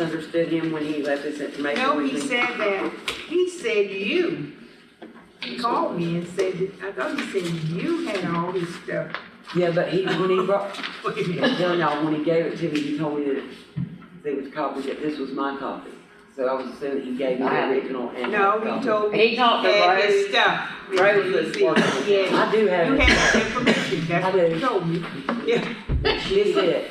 misunderstood him when he left this information. No, with he me. said that, he said you. He called me and said, that- I thought he said you had all this stuff. Yeah, but he, when he brought, Wait a minute. no, no, when he gave it to me, he told me that it was copies, that this was my copy. So I was assuming he gave me the original and. No, he told me. He talked to had this Rose. Stuff. Rose was He said, working. Yeah, I do you have it. had the information, that's I what he do. told me. She did.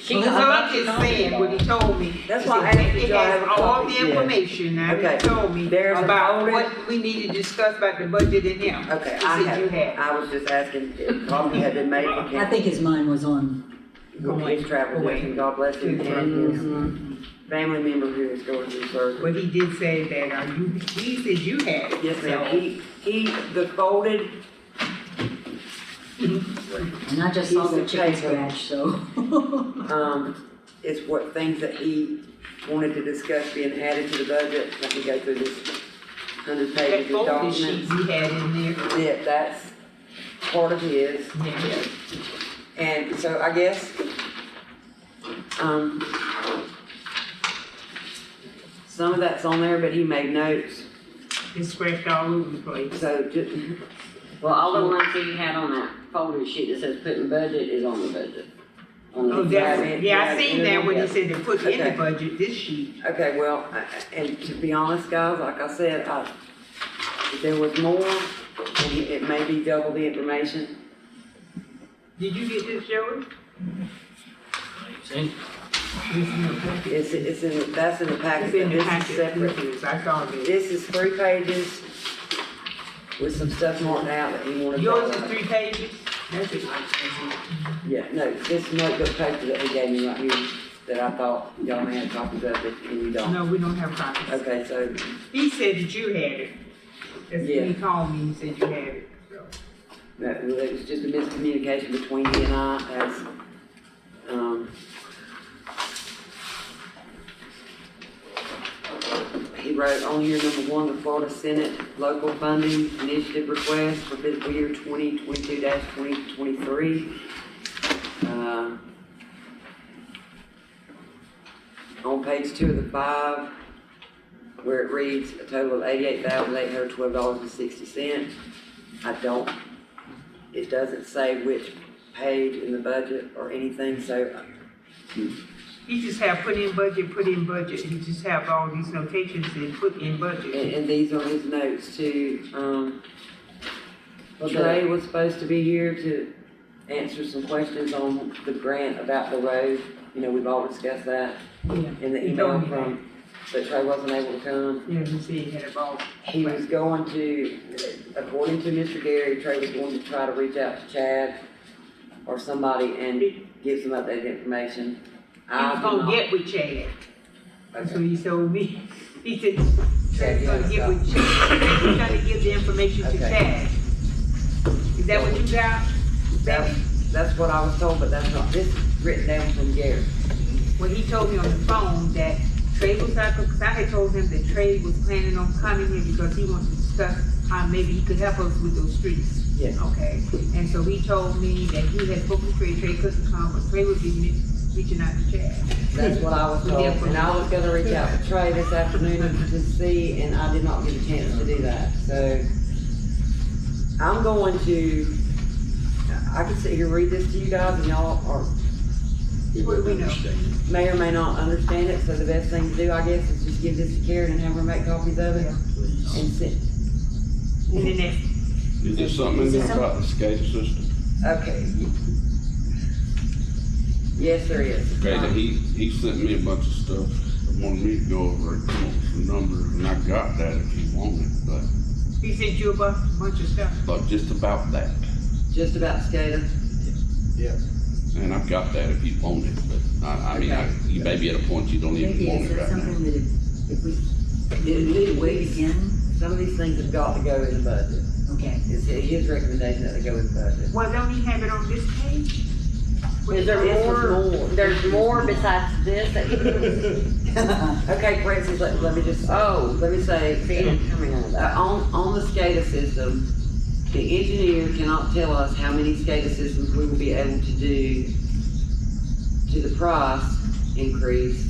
She So got I'm she just got saying it. what he told me. That's He why I said, asked if It y'all have has a all copy. the Yeah. information now, Okay. he told me There's a about folder. what we need to discuss about the budget and him. Okay, He I said you have, had. I was just asking if coffee had been made for him. I think his mind was on, He's traveling, with him. God bless him, and his family member who is going through surgery. But he did say that, uh, you, he said you had it. Yes, so- ma'am, he, he, the folded, and I just saw He's the a chicken paper. scratch, so. um, is what things that he wanted to discuss being added to the budget, let me go through this hundred That pages of folded documents. sheets he had in there. Yeah, that's part of his, Yeah. and so I guess, um, some of that's on there, but he made notes, It scratched all over the place. so just, Well, all the ones he had on that folder sheet that says putting budget is on the budget. On the- Oh, that's, yeah, I seen that when Yeah. he said to put in the Okay. budget, this sheet. Okay, well, I- I- and to be honest, guys, like I said, I, if there was more, and it it may be double the information. Did you get this, Joey? See, It's in the packet. It's, it's in, the- that's in the packet, It's but in the this packet. is separate. Yes, I saw it. This is three pages with some stuff marked out that he wanted. to- Yours is three pages? That's it. Yeah, no, this notebook paper that he gave me right here, that I thought y'all may have copies of, but you don't. No, we don't have copies. Okay, so, He said that you had it. That's Yeah. when he called me, he said you had it. so. no, well, it was just a miscommunication between he and I as, um, He wrote on here, number one, the Florida Senate Local Funding Initiative Request for fiscal year twenty twenty-two twenty twenty-three. Uh, On page two of the five, where it reads a total of eighty-eight thousand eight hundred twelve dollars and sixty cents. I don't, it doesn't say which page in the budget or anything, so He just have put in budget, put in budget. He just have all these notations and put in budget. And, and these are his notes too, um, Well, Trey was supposed to be here to answer some questions on the grant about the road, you know, we've all discussed that in the He email told me that. from, but Trey wasn't able to come. Yeah, he said he had a ball. He was going to, according to Mr. Gary, Trey was going to try to reach out to Chad or somebody and give some updated information. He I was do gonna not- get with Chad. That's Okay. what he told me. He said, Chad, Chad's gonna yeah, uh, get with Chad. He's gonna give the information to Okay. Chad. Is that what you got? That- Betty? That's what I was told, but that's not, this is written down from Gary. When he told me on the phone that Trey was not, because I had told him that Trey was planning on coming here because he wants to discuss how maybe he could help us with those streets. Yes. Okay, and so he told me that he had spoken to Trey, Trey couldn't come, but Trey would be me- reaching out to Chad. That's what I was told, and I was gonna reach out to Trey this afternoon to see, and I did not get a chance to do that, so. I'm going to, I can sit here, and read this to you guys, and y'all are, What do we know? may or may not understand it, so the best thing to do, I guess, is just give this to Karen and have her make copies of it. And send, And then that Is there something in there about the SCADA system? okay. Yes, there is. Okay, that he, he sent me a bunch of stuff, wanted me to go over and come up with some numbers, and I got that if he wanted, but, He sent you a bu- bunch of stuff. but just about that. Just about SCADA. And I've got that if you want it, but I, I mean, I, you may be at a point you don't even Maybe want is it that right now. something that if, if we, It- if it- we wait we- again, Some of these things have got to go in the budget. okay. It's his recommendation that they go in the budget. Well, don't he have it on this page? Is there This is more, more. there's more besides this? that- Okay, Francis, let, let me just, oh, let me say, Coming on uh, that. on, on the SCADA system, the engineer cannot tell us how many SCADA systems we will be able to do to the price increase